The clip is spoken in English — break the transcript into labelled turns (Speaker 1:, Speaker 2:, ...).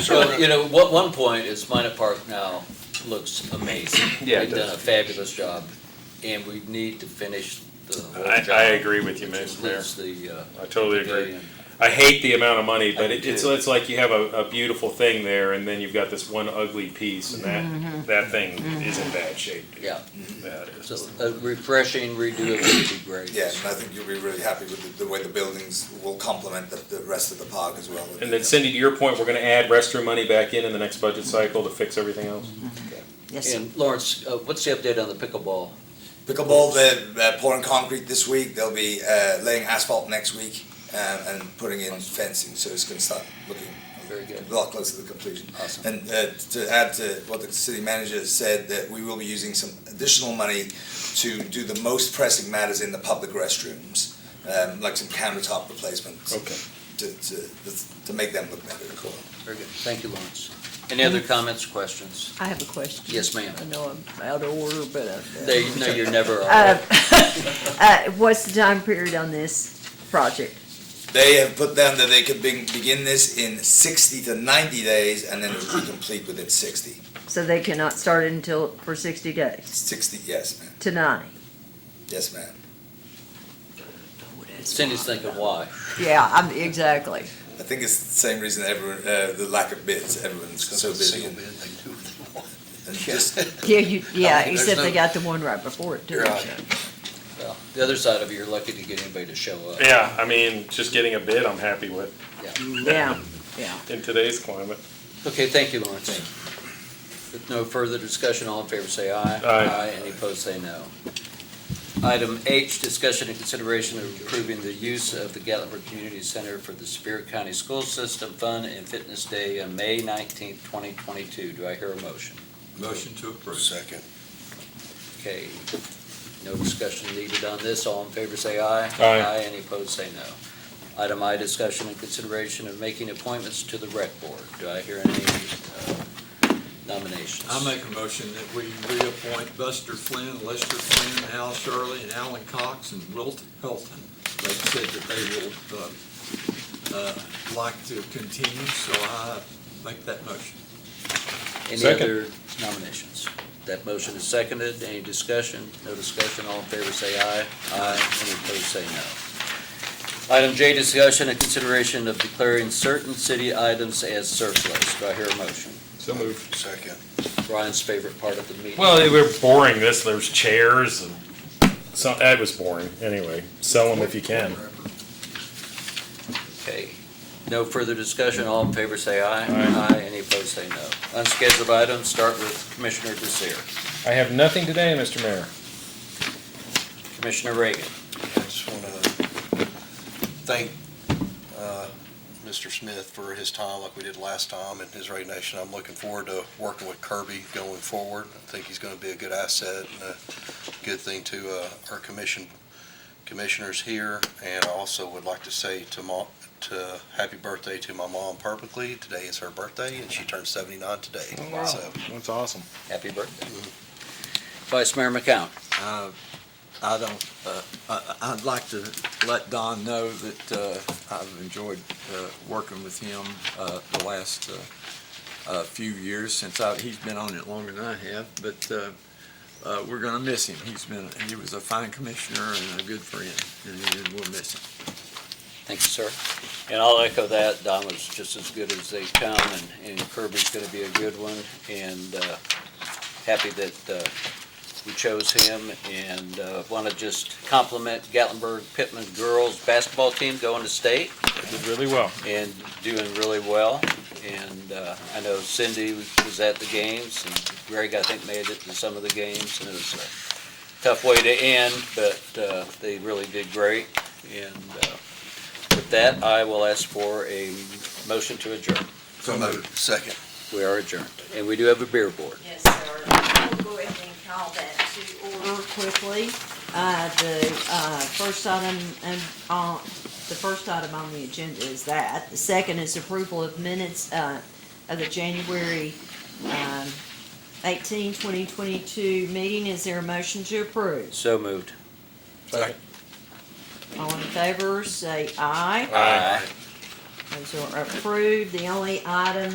Speaker 1: So, you know, what, one point is Minor Park now looks amazing.
Speaker 2: Yeah, it
Speaker 1: They've done a
Speaker 2: does.
Speaker 1: fabulous job, and we need to finish the whole
Speaker 3: I,
Speaker 1: job.
Speaker 3: I agree with you,
Speaker 1: which
Speaker 3: Mr. Mayor.
Speaker 1: includes the, uh,
Speaker 3: I totally agree.
Speaker 1: pavilion.
Speaker 3: I hate the amount of money, but
Speaker 1: do
Speaker 3: it- it's,
Speaker 1: too.
Speaker 3: it's like you have a, a beautiful thing there and then you've got this one ugly piece and that, that thing is in bad shape. dude.
Speaker 1: Yeah,
Speaker 3: That is.
Speaker 1: so a refreshing redo of it would be great.
Speaker 4: Yeah, and I think you'll be really happy with the, the way the buildings will complement the, the rest of the park as well.
Speaker 3: And then Cindy, to your point, we're gonna add restroom money back in in the next budget cycle to fix everything else?
Speaker 5: Yes,
Speaker 1: And Lawrence, uh, what's the update on the pickleball?
Speaker 4: Pickleball, they're, they're pouring concrete this week, they'll be, uh, laying asphalt next week, um, and putting in fencing, so it's gonna start looking
Speaker 1: Very good.
Speaker 4: a lot closer to completion.
Speaker 1: Awesome.
Speaker 4: And, uh, to add to what the city manager said, that we will be using some additional money to do the most pressing matters in the public restrooms, um, like some countertop replacements.
Speaker 3: Okay.
Speaker 4: To, to, to make them look better. Cool.
Speaker 1: Very good, thank you, Lawrence. Any other comments, questions?
Speaker 5: I have a question.
Speaker 1: Yes, ma'am.
Speaker 5: I know I'm out of order, but uh,
Speaker 1: They, no, you're never, all
Speaker 5: uh,
Speaker 1: right.
Speaker 5: uh, what's the time period on this project?
Speaker 4: They have put down that they could be- begin this in 60 to 90 days and then it will be complete within 60.
Speaker 5: So they cannot start it until, for sixty days,
Speaker 4: 60, yes, ma'am.
Speaker 5: tonight?
Speaker 4: Yes, ma'am.
Speaker 1: Cindy's thinking, why?
Speaker 5: Yeah, I'm, exactly.
Speaker 4: I think it's the same reason everyone, uh, the lack of bids, everyone's so busy. and- And just,
Speaker 5: Yeah, you, yeah,
Speaker 6: there's
Speaker 5: except
Speaker 6: no-
Speaker 5: they got the one right before it too.
Speaker 6: Right.
Speaker 1: Well, The other side of it, you're lucky to get anybody to show up.
Speaker 3: Yeah, I mean, just getting a bid, I'm happy with
Speaker 5: Yeah, yeah.
Speaker 3: in today's climate.
Speaker 1: Okay, thank you, Lawrence. With no further discussion, all in favor say aye.
Speaker 3: Aye.
Speaker 1: Any opposed say no. Item H, discussion and consideration of approving the use of the Gatlinburg Community Center for the Superior County School System Fun and Fitness Day on May nineteenth, twenty twenty-two. Do I hear a motion?
Speaker 6: Motion to approve. Second.
Speaker 1: Okay, no discussion needed on this. All in favor say aye.
Speaker 3: Aye.
Speaker 1: Any opposed say no. Item I, discussion and consideration of making appointments to the rec board. Do I hear any uh, nominations?
Speaker 6: I make a motion that we reappoint Buster Flynn, Lester Flynn, Al Shirley, and Alan Cox, and Wilt Helton. They said that they will, uh, uh, like to continue, so I make that motion.
Speaker 1: Any
Speaker 3: Second.
Speaker 1: other nominations? That motion is seconded. Any discussion? No discussion. All in favor, say aye. Aye. Any opposed, say no. Item J, discussion and consideration of declaring certain city items as surplus. Do I hear a motion?
Speaker 3: So moved.
Speaker 6: Second.
Speaker 1: Brian's favorite part of the meeting.
Speaker 3: Well, they were boring this, there's chairs and some, that was boring, anyway. Sell them if you can.
Speaker 1: Okay. No further discussion. All in favor, say aye.
Speaker 3: Aye.
Speaker 1: Any opposed, say no. Unscheduled items, start with Commissioner Desir.
Speaker 3: I have nothing today, Mr. Mayor.
Speaker 1: Commissioner Reagan.
Speaker 7: I just want to thank uh, Mr. Smith for his time, like we did last time, and his resignation. I'm looking forward to working with Kirby going forward. I think he's going to be a good asset and a good thing to uh, our commission, commissioners here. And I also would like to say to mom, to, happy birthday to my mom perfectly. Today is her birthday, and she turned 79 today. So
Speaker 3: That's awesome.
Speaker 1: Happy birthday. Vice Mayor McCown.
Speaker 6: Uh, I don't, uh, I- I'd like to let Don know that uh, I've enjoyed uh, working with him uh, the last uh, uh, few years since I, he's been on it longer than I have, but uh, uh, we're going to miss him. He's been, he was a fine commissioner and a good friend, and- and we'll miss him.
Speaker 1: Thank you, sir. And I'll echo that. Don was just as good as they come, and- and Kirby's going to be a good one. And uh, happy that uh, we chose him. And want to just compliment Gatlinburg Pittman girls basketball team going to state
Speaker 3: Did really well.
Speaker 1: and doing really well. And uh, I know Cindy was at the games, and Greg, I think, made it to some of the games. And it was a tough way to end, but uh, they really did great. And uh, with that, I will ask for a motion to adjourn.
Speaker 7: So moved. Second.
Speaker 1: We are adjourned, and we do have a beer board.
Speaker 8: Yes, sir. We'll go ahead and call that to order.
Speaker 5: Real quickly, uh, the, uh, first item, and, on the first item on the agenda is that. The second is approval of minutes, uh, of the January, um, eighteen, twenty twenty-two meeting. Is there a motion to approve?
Speaker 1: So moved.
Speaker 5: All in favor, say aye.
Speaker 1: Aye.
Speaker 5: Those are approved. The only item